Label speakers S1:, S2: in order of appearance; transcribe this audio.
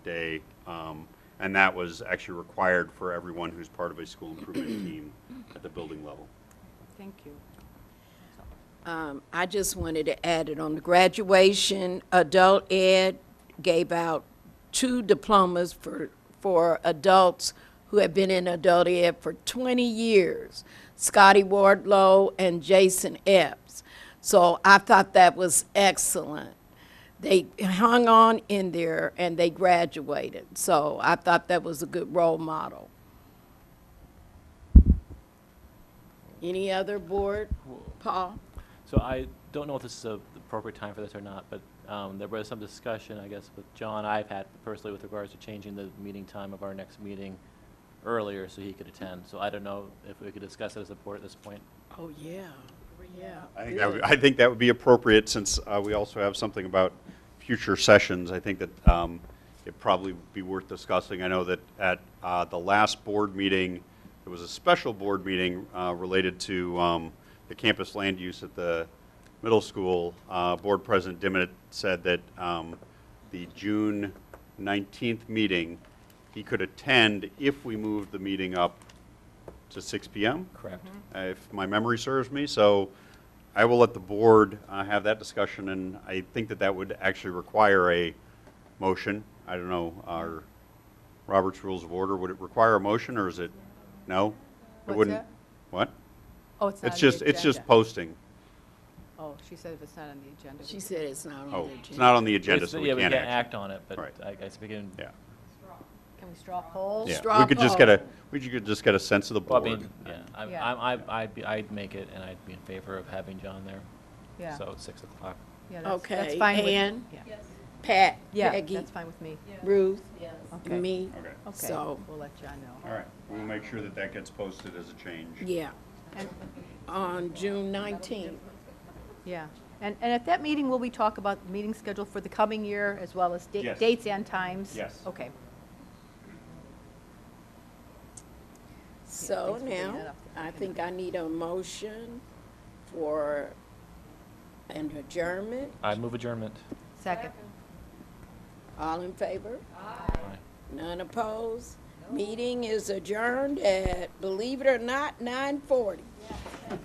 S1: day. um, And that was actually required for everyone who's part of a school improvement team at the building level.
S2: Thank you.
S3: Um, I just wanted to add it on the graduation, adult ed gave out two diplomas for, for adults who have been in adult ed for 20 years, Scotty Wardlow and Jason Epps. So I thought that was excellent. They hung on in there and they graduated. So I thought that was a good role model. Any other board, Paul?
S4: So I don't know if this is a- the appropriate time for this or not, but um, there was some discussion, I guess, with John, I've had personally with regards to changing the meeting time of our next meeting earlier so he could attend. So I don't know if we could discuss it as a board at this point.
S3: Oh, yeah, yeah.
S1: I think that would, I think that would be appropriate, since uh, we also have something about future sessions. I think that um, it'd probably be worth discussing. I know that at uh, the last board meeting, it was a special board meeting uh, related to um, the campus land use at the middle school. Uh, Board President Dimmitt said that um, the June 19th meeting, he could attend if we moved the meeting up to 6 PM?
S4: Correct.
S1: uh, if my memory serves me. So I will let the board uh, have that discussion, and I think that that would actually require a motion. I don't know, our Robert's Rules of Order, would it require a motion, or is it, no? It
S2: What's
S1: wouldn't.
S2: that?
S1: What?
S2: Oh, it's not
S1: It's
S2: on the
S1: just, it's just
S2: agenda.
S1: posting.
S2: Oh, she said if it's not on the agenda.
S3: She said it's not on the
S1: Oh,
S3: agenda.
S1: it's not on the agenda,
S4: It's-
S1: so we
S4: Yeah, we
S1: can't
S4: can't
S1: act.
S4: act on it, but
S1: Right.
S4: I guess we can.
S1: Yeah,
S2: Can we straw poll?
S1: yeah. We
S3: straw
S1: could just get a,
S3: poll.
S1: we could just get a sense of the
S4: Well, I
S1: board.
S4: mean, yeah, I'm-
S2: Yeah.
S4: I'm- I'd I'd be- I'd make it, and I'd be in favor of having John there.
S2: Yeah.
S4: So it's 6 o'clock.
S2: Yeah, that's- that's
S3: Okay,
S2: fine with-
S3: Ann?
S2: yeah.
S3: Pat,
S2: Yeah,
S3: Peggy,
S2: that's fine with me.
S3: Ruth,
S2: Okay.
S3: and me.
S1: Okay,
S2: Okay,
S3: So,
S2: we'll let John know.
S1: all right. We'll make sure that that gets posted as a change.
S3: yeah,
S2: And,
S3: on June 19th.
S2: yeah, and, and at that meeting, will we talk about the meeting schedule for the coming year as well as da-
S1: Yes.
S2: dates and times?
S1: Yes.
S2: Okay.
S3: So
S2: thanks for bringing that
S3: now,
S2: up.
S3: I think I need a motion for an adjournment.
S4: I move adjournment.
S2: Second.
S3: All in favor?
S4: Aye.
S3: None opposed? Meeting is adjourned at, believe it or not, 9:40.